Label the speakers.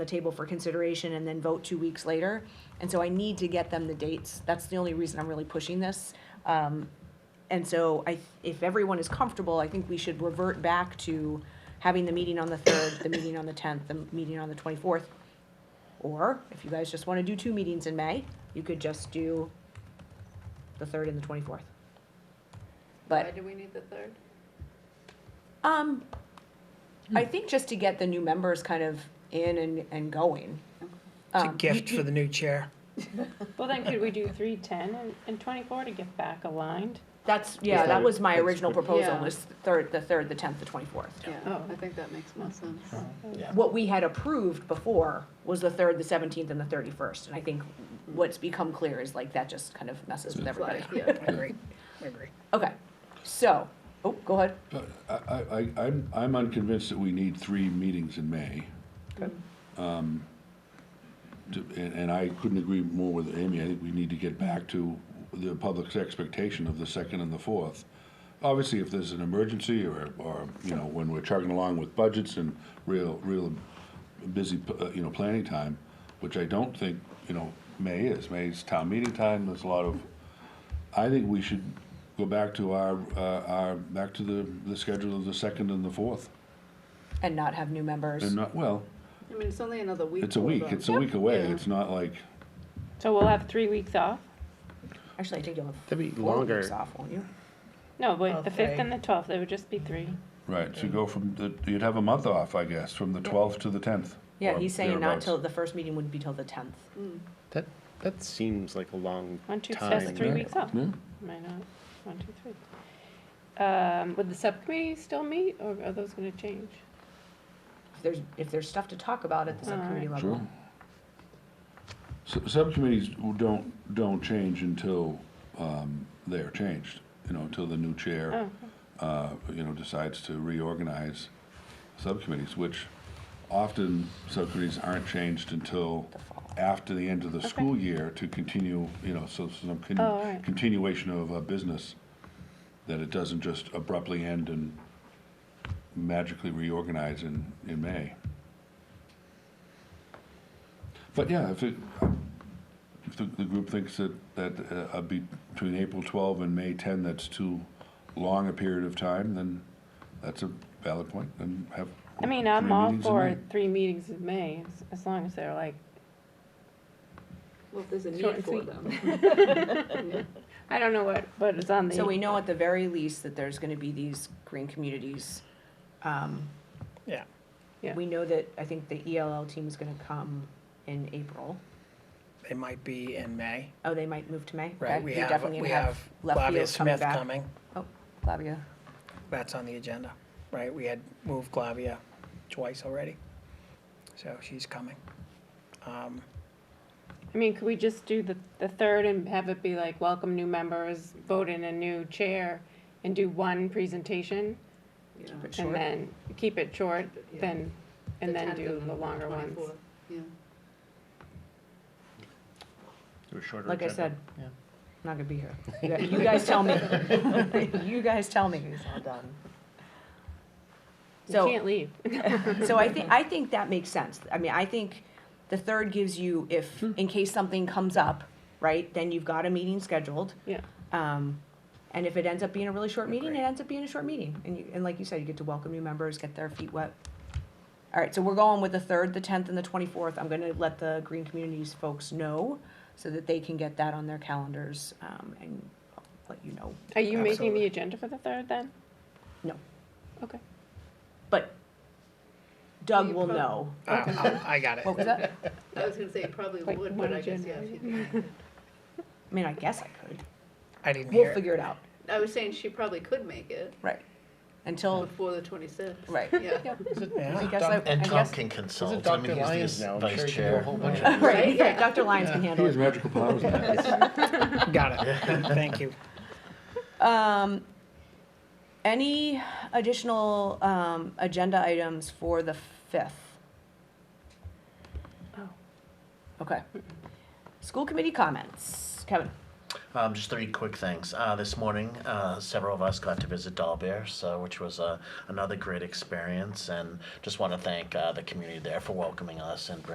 Speaker 1: the table for consideration and then vote two weeks later. And so I need to get them the dates. That's the only reason I'm really pushing this. Um, And so I, if everyone is comfortable, I think we should revert back to having the meeting on the third, the meeting on the tenth, the meeting on the twenty-fourth. Or if you guys just want to do two meetings in May, you could just do the third and the twenty-fourth. But
Speaker 2: Why do we need the third?
Speaker 1: Um, I think just to get the new members kind of in and, and going.
Speaker 3: It's a
Speaker 1: Um,
Speaker 3: gift for the new chair.
Speaker 4: Well, then could we do three, ten, and, and twenty-four to get back aligned?
Speaker 1: That's, yeah, that
Speaker 5: that-
Speaker 1: was my
Speaker 5: that's
Speaker 1: original
Speaker 5: good.
Speaker 1: proposal,
Speaker 2: Yeah.
Speaker 1: was third, the third, the tenth, the twenty-fourth.
Speaker 2: Yeah,
Speaker 4: Oh.
Speaker 2: I think that makes more sense.
Speaker 5: Yeah.
Speaker 1: What we had approved before was the third, the seventeenth, and the thirty-first, and I think what's become clear is like, that just kind of messes with everybody.
Speaker 2: Like, yeah.
Speaker 3: agree, I agree.
Speaker 1: Okay, so, oh, go ahead.
Speaker 6: I, I, I- I'm, I'm unconvinced that we need three meetings in May. Um, to- And, and I couldn't agree more with Amy. I think we need to get back to the public's expectation of the second and the fourth. Obviously, if there's an emergency or, or, you know, when we're chugging along with budgets and real, real busy, uh, you know, planning time, which I don't think, you know, May is. May is town meeting time. There's a lot of, I think we should go back to our, uh, our, back to the, the schedule of the second and the fourth.
Speaker 1: And not have new members.
Speaker 6: And not, well,
Speaker 2: I mean, it's only another week.
Speaker 6: it's a
Speaker 2: for
Speaker 6: week,
Speaker 2: them.
Speaker 6: it's a week away,
Speaker 2: Yeah.
Speaker 6: it's not like,
Speaker 4: So we'll have three weeks off?
Speaker 1: Actually, I think you'll have
Speaker 5: That'd be
Speaker 1: four weeks
Speaker 5: longer.
Speaker 1: off, won't you?
Speaker 4: No, but the fifth
Speaker 3: Okay.
Speaker 4: and the twelfth, it would just be three.
Speaker 6: right, so you go from the, you'd have a month off, I guess, from the twelfth to the tenth.
Speaker 1: Yeah, he's saying not till, the first meeting wouldn't be till the tenth.
Speaker 5: That, that seems like a long
Speaker 4: One, two,
Speaker 5: time.
Speaker 4: that's three
Speaker 6: yeah.
Speaker 4: weeks off.
Speaker 6: Yeah.
Speaker 4: Why not? One, two, three. Um, would the subcommittee still meet, or are those gonna change?
Speaker 1: If there's, if there's stuff to talk about at the subcommittee
Speaker 4: Alright.
Speaker 1: level.
Speaker 6: Sure. Su- Subcommittees don't, don't change until, um, they are changed, you know, until the new chair,
Speaker 4: Oh,
Speaker 6: uh, you know, decides to reorganize subcommittees, which often subcommittees aren't changed until
Speaker 1: The fall.
Speaker 6: after the end of the
Speaker 4: Okay.
Speaker 6: school year to continue, you know, so some con-
Speaker 4: Oh, all right.
Speaker 6: continuation of a business, that it doesn't just abruptly end and magically reorganize in, in May. But yeah, if it, if the, the group thinks that, that uh, a be- between April 12 and May 10, that's too long a period of time, then that's a valid point, then have.
Speaker 4: I mean,
Speaker 6: three
Speaker 4: I'm all
Speaker 6: meetings in
Speaker 4: for
Speaker 6: May.
Speaker 4: three meetings in May, as, as long as they're like,
Speaker 2: Well, if there's a
Speaker 4: Short
Speaker 2: need
Speaker 4: and
Speaker 2: for
Speaker 4: sweet.
Speaker 2: them.
Speaker 4: I don't know what, what is on the.
Speaker 1: So we know at the very least that there's gonna be these green communities. Um,
Speaker 3: Yeah.
Speaker 4: Yeah.
Speaker 1: We know that, I think the ELL team is gonna come in April.
Speaker 3: It might be in May,
Speaker 1: Oh, they might move to May?
Speaker 3: right?
Speaker 1: Okay,
Speaker 3: We
Speaker 1: you're
Speaker 3: have,
Speaker 1: definitely
Speaker 3: we
Speaker 1: gonna
Speaker 3: have
Speaker 1: left field
Speaker 3: Flavia Smith
Speaker 1: back.
Speaker 3: coming.
Speaker 1: Oh, Flavia.
Speaker 3: That's on the agenda, right? We had moved Flavia twice already. So she's coming. Um,
Speaker 4: I mean, could we just do the, the third and have it be like, welcome new members, vote in a new chair, and do one presentation?
Speaker 2: Yeah.
Speaker 1: Keep it short.
Speaker 4: And then, keep it short,
Speaker 2: Yeah.
Speaker 4: then, and
Speaker 2: The
Speaker 4: then
Speaker 2: 10th
Speaker 4: do the longer ones.
Speaker 2: 24th. Yeah,
Speaker 1: Like I said, I'm not gonna be here. You guys- You guys tell me. You guys tell me. It's all done.
Speaker 4: You
Speaker 1: So-
Speaker 4: can't leave.
Speaker 1: So I think, I think that makes sense. I mean, I think the third gives you, if, in case something comes up, right, then you've got a meeting scheduled.
Speaker 4: Yeah.
Speaker 1: Um, and if it ends up being a really short meeting, it
Speaker 3: Agreed.
Speaker 1: ends up being a short meeting. And you, and like you said, you get to welcome new members, get their feet wet. All right, so we're going with the third, the tenth, and the twenty-fourth. I'm gonna let the Green Communities folks know so that they can get that on their calendars, um, and I'll let you know.
Speaker 4: Are you making
Speaker 3: Absolutely.
Speaker 4: the agenda for the third then?
Speaker 1: No.
Speaker 4: Okay.
Speaker 1: But Doug
Speaker 2: You
Speaker 1: will
Speaker 2: prob-
Speaker 1: know.
Speaker 3: I, I- I got it.
Speaker 1: What was that?
Speaker 2: I was gonna say it probably
Speaker 4: Like
Speaker 2: would,
Speaker 4: one
Speaker 2: but I guess, yeah.
Speaker 4: January.
Speaker 2: if you-
Speaker 1: I mean, I guess I could.
Speaker 3: I didn't hear
Speaker 1: We'll
Speaker 3: it.
Speaker 1: figure it out.
Speaker 2: I was saying she probably could make it
Speaker 1: Right. Until,
Speaker 2: before the twenty-sixth.
Speaker 1: right.
Speaker 2: Yeah.
Speaker 1: I
Speaker 3: Yeah.
Speaker 1: guess I, I
Speaker 7: And Tom
Speaker 1: guess.
Speaker 7: can
Speaker 5: Is
Speaker 7: consult.
Speaker 5: it
Speaker 7: I
Speaker 5: Dr.
Speaker 7: mean, he's the
Speaker 5: Lyons now? I'm
Speaker 7: vice
Speaker 5: sure he can do a
Speaker 7: chair.
Speaker 5: whole bunch of
Speaker 1: Right, yeah, Dr. Lyons can
Speaker 6: He
Speaker 1: handle
Speaker 6: has
Speaker 1: it.
Speaker 6: magical powers in that.
Speaker 3: Got it. Thank you.
Speaker 1: Um, any additional, um, agenda items for the fifth?
Speaker 4: Oh.
Speaker 1: Okay. School committee comments. Kevin?
Speaker 7: Um, just three quick things. Uh, this morning, uh, several of us got to visit Dahlberg, so which was uh, another great experience, and just want to thank uh, the community there for welcoming us and bringing